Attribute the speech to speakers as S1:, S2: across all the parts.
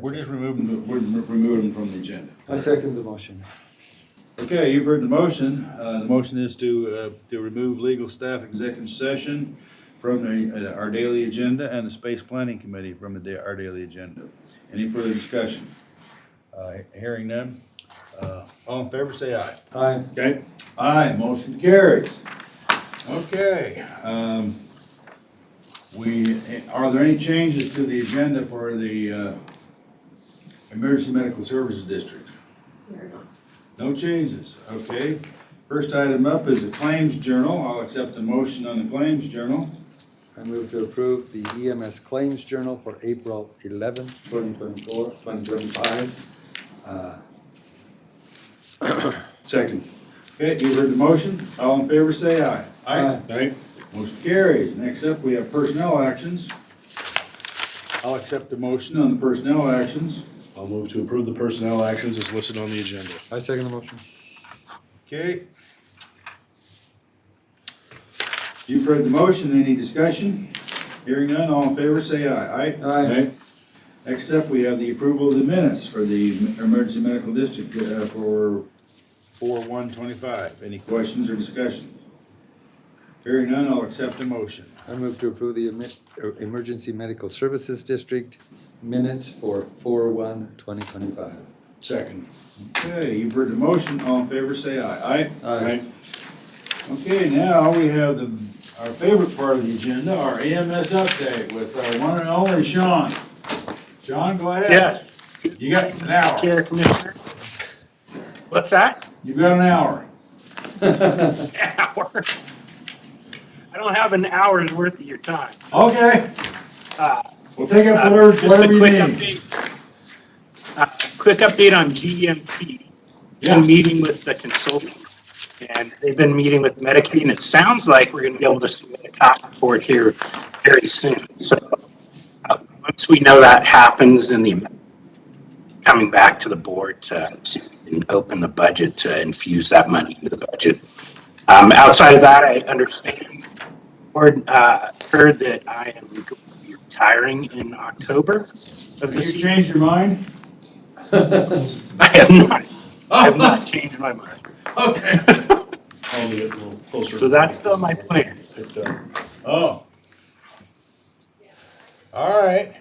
S1: We're just removing, the- we're remo- removing them from the agenda.
S2: I second the motion.
S1: Okay, you've heard the motion. Uh, the motion is to, uh, to remove legal staff executive session from the, uh, our daily agenda and the space planning committee from the, da- our daily agenda. Any further discussion? Uh, hearing none, uh, all in favor, say aye.
S2: Aye.
S1: Okay. Aye, motion carries. Okay, um, we, are there any changes to the agenda for the, uh, Emergency Medical Services District?
S3: They're not.
S1: No changes, okay. First item up is the Claims Journal. I'll accept a motion on the Claims Journal.
S2: I move to approve the EMS Claims Journal for April eleventh, twenty twenty-four, twenty twenty-five.
S1: Second. Okay, you heard the motion. All in favor, say aye.
S2: Aye.
S1: Aye. Motion carries. Next up, we have personnel actions. I'll accept a motion on the personnel actions.
S4: I'll move to approve the personnel actions as listed on the agenda.
S2: I second the motion.
S1: Okay. You've heard the motion, any discussion? Hearing none, all in favor, say aye. Aye?
S2: Aye.
S1: Aye. Next up, we have the approval of the minutes for the emergency medical district uh, for four one twenty-five. Any questions or discussion? Hearing none, I'll accept a motion.
S2: I move to approve the emi- er, Emergency Medical Services District minutes for four one, twenty twenty-five.
S4: Second.
S1: Okay, you've heard the motion, all in favor, say aye. Aye?
S2: Aye.
S1: Okay, now we have the, our favorite part of the agenda, our EMS update with our one and only Sean. Sean, go ahead.
S5: Yes,
S1: You got an hour.
S5: Chair Commissioner. What's that?
S1: You got an hour.
S5: Hour? I don't have an hour's worth of your time.
S1: Okay.
S5: Uh,
S1: We'll take up
S5: uh,
S1: whatever,
S5: just a
S1: whatever you
S5: quick
S1: need.
S5: update. Uh, Quick update on E GMT.
S1: Yeah.
S5: Been meeting with the consultant, and they've been meeting with Medicaid, and it sounds like we're gonna be able to submit a cost report here very soon. So, uh, once we know that happens, then the, coming back to the board to see if we can open the budget to infuse that money into the budget. Um, outside of that, I understand, or, uh, heard that I am going to be retiring in October of
S1: Have
S5: this
S1: you
S5: year.
S1: changed your mind?
S5: I have not, I
S1: Oh.
S5: have not changed my mind.
S1: Okay.
S4: I'll get a little closer.
S5: So that's still my plan.
S4: Picked up.
S1: Oh. All right.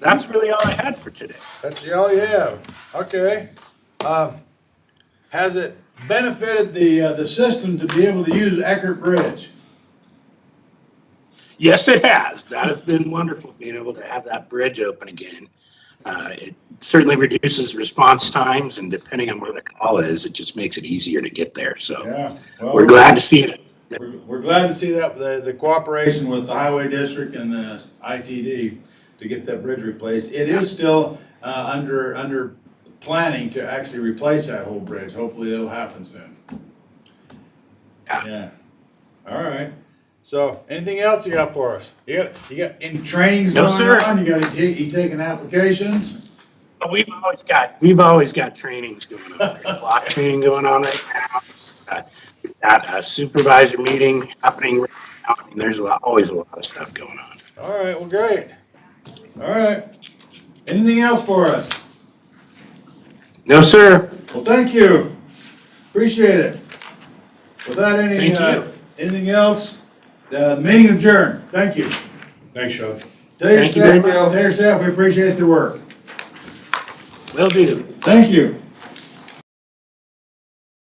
S5: That's really all I had for today.
S1: That's all you have, okay. Um, Has it benefited the, uh, the system to be able to use Eckert Bridge?
S5: Yes, it has. That has been wonderful, being able to have that bridge open again. Uh, it certainly reduces response times and depending on where the call is, it just makes it easier to get there. So
S1: Yeah.
S5: we're glad to see it.
S1: We're we're glad to see that, the, the cooperation with the highway district and the ITD to get that bridge replaced. It is still, uh, under, under planning to actually replace that whole bridge. Hopefully it'll happen soon.
S5: Yeah.
S1: Yeah. All right. So, anything else you got for us? You got, you got any trainings
S5: No,
S1: going
S5: sir.
S1: on? You got, you, you taking applications?
S5: But we've always got, we've always got trainings going on. There's blockchain going on right now. Uh, we've Got a supervisor meeting happening right now. I mean, There's a lot, always a lot of stuff going on.
S1: All right, well, great. All right. Anything else for us?
S5: No, sir.
S1: Well, thank you. Appreciate it. Without any,
S5: Thank
S1: uh,
S5: you.
S1: anything else, the meeting adjourned. Thank you.
S4: Thanks, Sean.
S1: Tell your
S5: Thank you very
S1: staff, tell your staff we appreciate their work.
S5: Will do.
S1: Thank you.